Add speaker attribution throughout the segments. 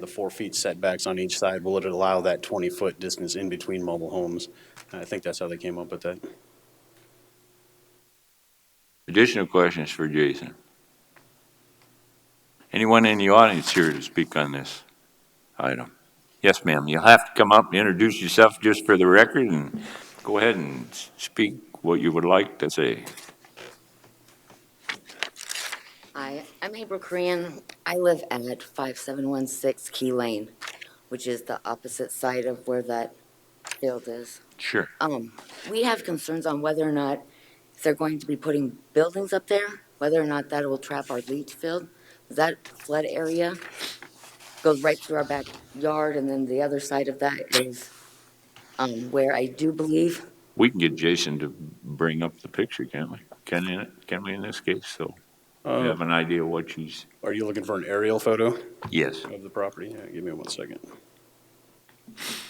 Speaker 1: The four feet setbacks on each side, will it allow that 20-foot distance in between mobile homes? I think that's how they came up with that.
Speaker 2: Additional questions for Jason? Anyone in the audience here to speak on this item? Yes, ma'am, you'll have to come up and introduce yourself just for the record and go ahead and s- speak what you would like to say.
Speaker 3: Hi, I'm April Korean. I live at 5716 Key Lane, which is the opposite side of where that field is.
Speaker 2: Sure.
Speaker 3: Um, we have concerns on whether or not if they're going to be putting buildings up there, whether or not that will trap our leach field. That flood area goes right through our backyard, and then the other side of that is, um, where I do believe
Speaker 2: We can get Jason to bring up the picture, can't we? Can, in- can we in this case, so we have an idea what she's,
Speaker 1: Are you looking for an aerial photo
Speaker 2: yes,
Speaker 1: of the property? Yeah, give me one second.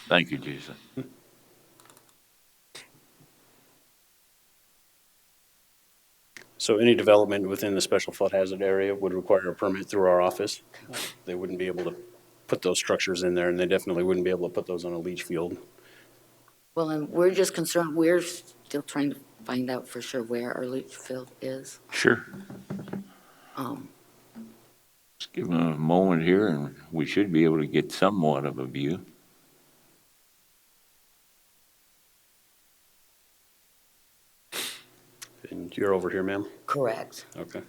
Speaker 2: thank you, Jason.
Speaker 1: So any development within the special flood hazard area would require a permit through our office. They wouldn't be able to put those structures in there, and they definitely wouldn't be able to put those on a leach field.
Speaker 3: Well, and we're just concerned, we're still trying to find out for sure where our leach field is.
Speaker 2: Sure.
Speaker 3: Um,
Speaker 2: Just give him a moment here and we should be able to get somewhat of a view.
Speaker 1: And you're over here, ma'am?
Speaker 3: correct.
Speaker 1: Okay,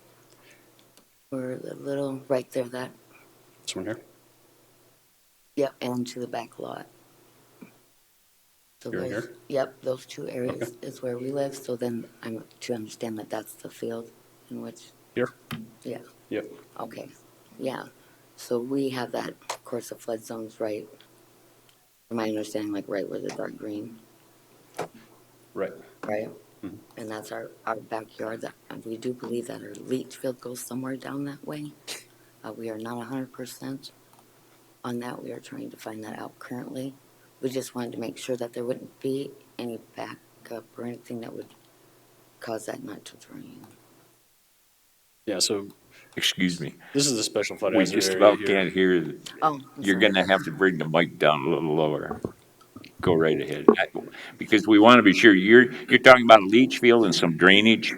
Speaker 3: We're a little, right there, that,
Speaker 1: this one here?
Speaker 3: yep, and to the back lot. So
Speaker 1: Here and
Speaker 3: those-
Speaker 1: here?
Speaker 3: Yep, those two areas is where we live, so then I'm to understand that that's the field in which,
Speaker 1: Here?
Speaker 3: yeah,
Speaker 1: Yep.
Speaker 3: okay, yeah. So we have that, of course, the flood zone's right, from my understanding, like right where the dark green
Speaker 1: Right.
Speaker 3: right? And that's our, our backyard, that, and we do believe that our leach field goes somewhere down that way. Uh, we are not a hundred percent on that, we are trying to find that out currently. We just wanted to make sure that there wouldn't be any backup or anything that would cause that not to drain.
Speaker 1: Yeah, so
Speaker 2: Excuse me.
Speaker 1: this is the special flood
Speaker 2: We
Speaker 1: hazard area
Speaker 2: just
Speaker 1: here.
Speaker 2: about can't hear. the-
Speaker 3: Oh, I'm
Speaker 2: You're
Speaker 3: sorry.
Speaker 2: gonna have to bring the mic down a little lower. Go right ahead, I- because we want to be sure, you're, you're talking about a leach field and some drainage?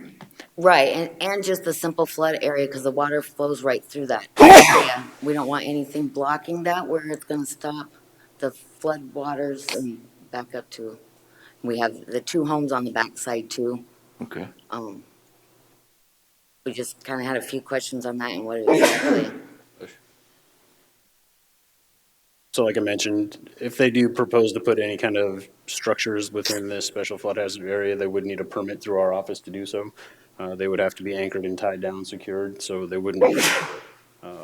Speaker 3: Right, and, and just the simple flood area, because the water flows right through that. area. We don't want anything blocking that where it's gonna stop the flood waters and back up to. We have the two homes on the backside too,
Speaker 2: Okay.
Speaker 3: um. We just kinda had a few questions on that and what exactly,
Speaker 1: So like I mentioned, if they do propose to put any kind of structures within this special flood hazard area, they would need a permit through our office to do so. Uh, they would have to be anchored and tied down, secured, so they wouldn't. uh,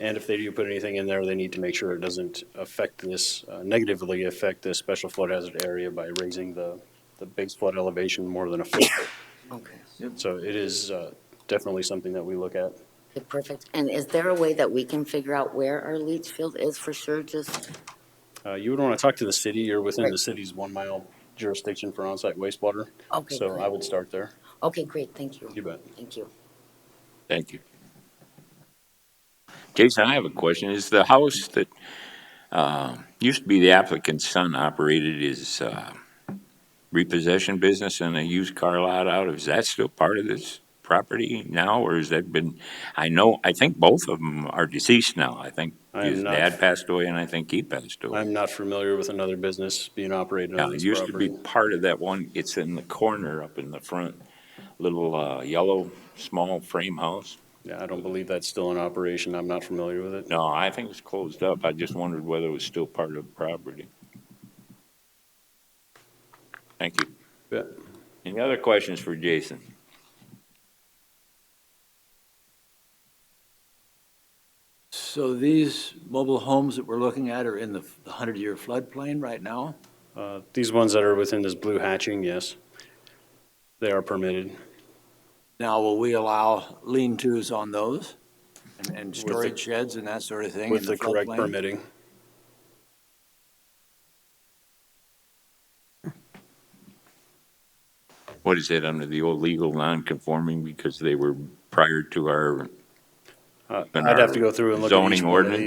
Speaker 1: And if they do put anything in there, they need to make sure it doesn't affect this, uh, negatively affect this special flood hazard area by raising the, the base flood elevation more than a foot.
Speaker 3: okay.
Speaker 1: So it is, uh, definitely something that we look at.
Speaker 3: Okay, Perfect, and is there a way that we can figure out where our leach field is for sure, just,
Speaker 1: Uh, you would want to talk to the city. You're within the
Speaker 3: Right.
Speaker 1: city's one mile jurisdiction for onsite wastewater.
Speaker 3: Okay,
Speaker 1: So
Speaker 3: great.
Speaker 1: I would start there.
Speaker 3: okay, great, thank
Speaker 1: You
Speaker 3: you,
Speaker 1: bet.
Speaker 3: thank you.
Speaker 2: Thank you. Jason, I have a question. Is the house that, uh, used to be the applicant's son operated his, uh, repossession business and a used car lot out of, is that still part of this property now, or has that been, I know, I think both of them are deceased now. I think
Speaker 1: I am
Speaker 2: his
Speaker 1: not-
Speaker 2: dad passed away and I think he passed away.
Speaker 1: I'm not familiar with another business being operated
Speaker 2: Now,
Speaker 1: on
Speaker 2: it
Speaker 1: this
Speaker 2: used to be
Speaker 1: property.
Speaker 2: part of that one, it's in the corner up in the front, little, uh, yellow, small frame house.
Speaker 1: Yeah, I don't believe that's still in operation. I'm not familiar with it.
Speaker 2: No, I think it was closed up. I just wondered whether it was still part of the property. Thank you.
Speaker 1: Yeah.
Speaker 2: Any other questions for Jason?
Speaker 4: So these mobile homes that we're looking at are in the 100-year floodplain right now?
Speaker 1: Uh, These ones that are within this blue hatching, yes, they are permitted.
Speaker 4: Now, will we allow lean-tos on those and- and
Speaker 1: the-
Speaker 4: storage sheds and that sort of thing? in
Speaker 1: With the correct
Speaker 4: floodplain?
Speaker 1: permitting.
Speaker 2: What is it, under the old legal non-conforming because they were prior to our
Speaker 1: Uh,
Speaker 2: in
Speaker 1: I'd have
Speaker 2: our
Speaker 1: to go through and look at each
Speaker 2: zoning
Speaker 1: one of
Speaker 2: ordinance?